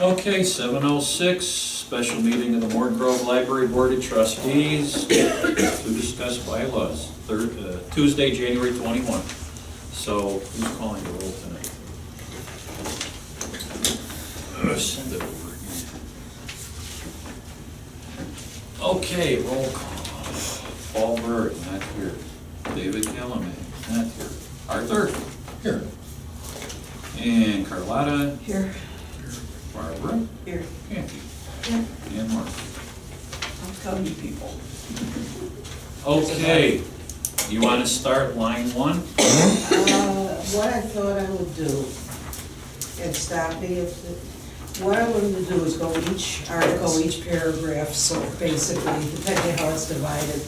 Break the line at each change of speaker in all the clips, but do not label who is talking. Okay, seven oh six, special meeting of the Morgan Grove Library Board of Trustees to discuss bylaws, Third, uh, Tuesday, January twenty-one. So who's calling the roll tonight? Uh, Send it over again. Okay, roll call. Paul Burt, not here. David Kellerman, not here. Arthur? Here. And Carlotta?
Here.
Barbara?
Here.
Andy?
Yeah.
And Mark.
I'm telling you people.
Okay, you want to start line one?
Uh, What I thought I would do, and stop me if, what I wanted to do is go each article, each paragraph, so basically, depending how it's divided.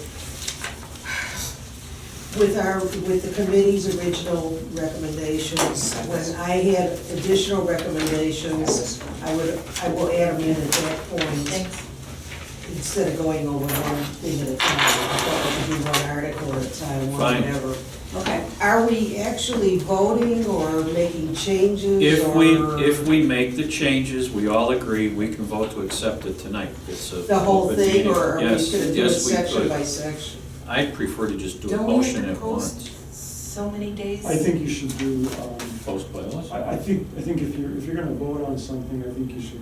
With our, with the committee's original recommendations, when I had additional recommendations, I would, I will add them in at that point, instead of going over one thing at a time. I thought we could do one article at a time, or
Fine.
whatever.
Okay.
Are we actually voting or making changes or?
If we, if we make the changes, we all agree, we can vote to accept it tonight. It's a.
The whole
open
thing,
meeting.
or are we
Yes,
gonna do it
yes, we
section
could.
by section?
I prefer to just do a
Don't we
motion
have
at
to post
once.
so many days?
I think you should do, um,
Post bylaws,
I, I think, I think if you're, if you're gonna vote on something, I think you should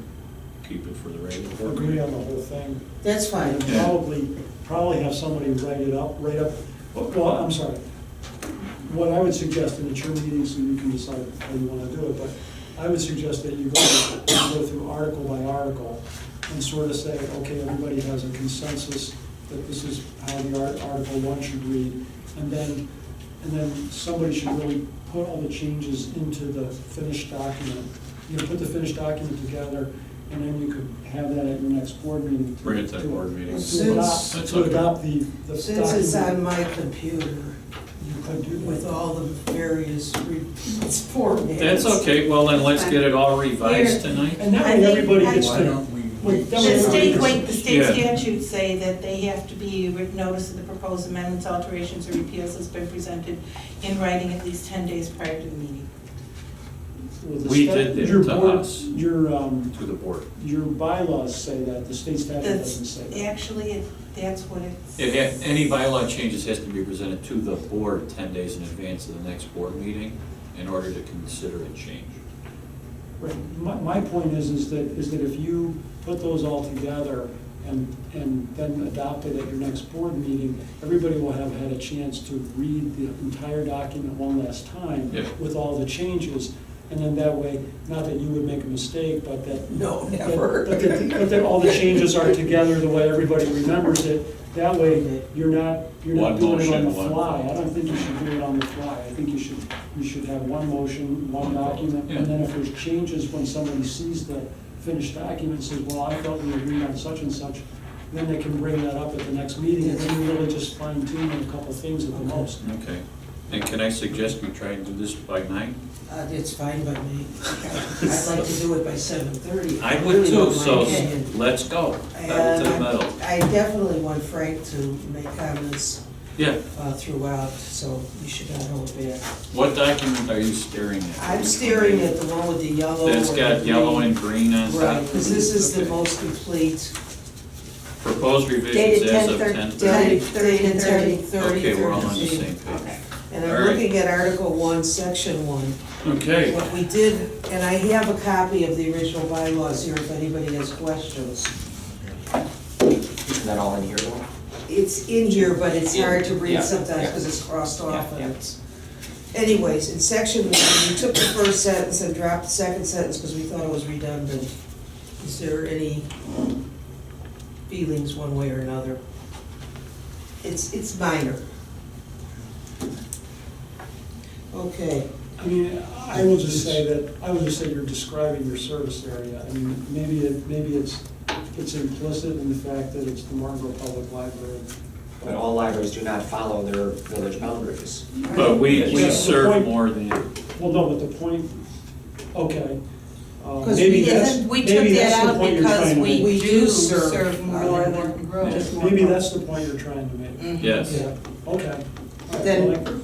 keep it for the regular board
agree
meeting.
on the whole thing.
That's fine.
And
Yeah.
probably, probably have somebody write it up, write up, well, I'm sorry. What I would suggest, and it's your meeting, so you can decide how you wanna do it, but I would suggest that you go, you go through article by article and sort of say, okay, everybody has a consensus that this is how the art- article one should read. And then, and then somebody should really put all the changes into the finished document. You know, put the finished document together, and then you could have that at your next board meeting. to-
Bring it to the board meeting.
Since-
to adopt,
That's
to
okay.
adopt the, the
Since it's on
document,
my computer
you could do
with
that.
all the various repeats, formats.
That's okay, well then let's get it all revised
Here.
tonight.
And that
I
way
think-
everybody
I-
gets
Why
to.
don't we?
wait, that way
The state,
everybody
wait,
gets-
the state
Yeah.
statutes say that they have to be, written notice of the proposed amendments, alterations, or repeals has been presented in writing at least ten days prior to the meeting.
well, the
We
stat-
did it
your
to
board-
us.
Your, um,
To the board.
your bylaws say that, the state statute
That's-
doesn't say that.
Actually, it- that's what it's.
It ha any bylaw changes has to be presented to the board ten days in advance of the next board meeting in order to consider a change.
Right, my, my point is, is that, is that if you put those all together and, and then adopt it at your next board meeting, everybody will have had a chance to read the entire document one last time
Yeah.
with all the changes, and then that way, not that you would make a mistake, but that.
No,
that-
never.
But that, but that all the changes are together the way everybody remembers it, that way, you're not, you're not
One
doing it on the
motion, one-
fly. I don't think you should do it on the fly, I think you should, you should have one motion, one document,
Yeah.
and then if there's changes when somebody sees the finished document and says, well, I felt we agreed on such and such, then they can bring that up at the next meeting, and then you really just fine tune a couple things at the most.
Okay, and can I suggest we try and do this by nine?
Uh, it's fine by me. I'd like to do it by seven thirty.
I would too, so let's go, pedal
And
to the metal.
um, I definitely want Frank to make comments
Yeah,
uh, throughout, so you should not hold back.
what document are you staring at?
I'm staring at the one with the yellow.
That's
and
got
the
yellow
green.
and green on top?
Right, because this is the
Okay.
most complete,
Proposed revisions
Dated
as of
10,
ten
yeah.
thirty.
dated
30,
thirty, thirty, thirty.
Okay, we're all on the same page.
And
All
I'm
right.
looking at Article One, Section One.
Okay,
What we did, and I have a copy of the original bylaws here if anybody has questions.
Isn't that all in here though?
It's in here, but it's hard to read
Yeah,
sometimes
yeah.
because it's crossed
Yeah,
off
yeah.
and it's. Anyways, in section one, we took the first sentence and dropped the second sentence because we thought it was redundant. Is there any feelings one way or another? It's, it's minor. Okay,
I mean, I will just say that, I would just say you're describing your service area. I mean, maybe it, maybe it's, it's implicit in the fact that it's the Marlboro Public Library.
But all libraries do not follow their village boundaries.
but we,
Yeah,
we
the
serve
point-
more than,
Well, no, but the point, okay. uh,
'Cause
maybe
we-
that's-
We took
maybe that's
that
the
out
point you're
because
trying to
we
make.
We
do
do serve
serve more
more
than
than
Morton Grove.
Yes,
Maybe that's the point you're trying to make.
Mhm.
yes.
Yeah, okay. All right,
Then-
well, I-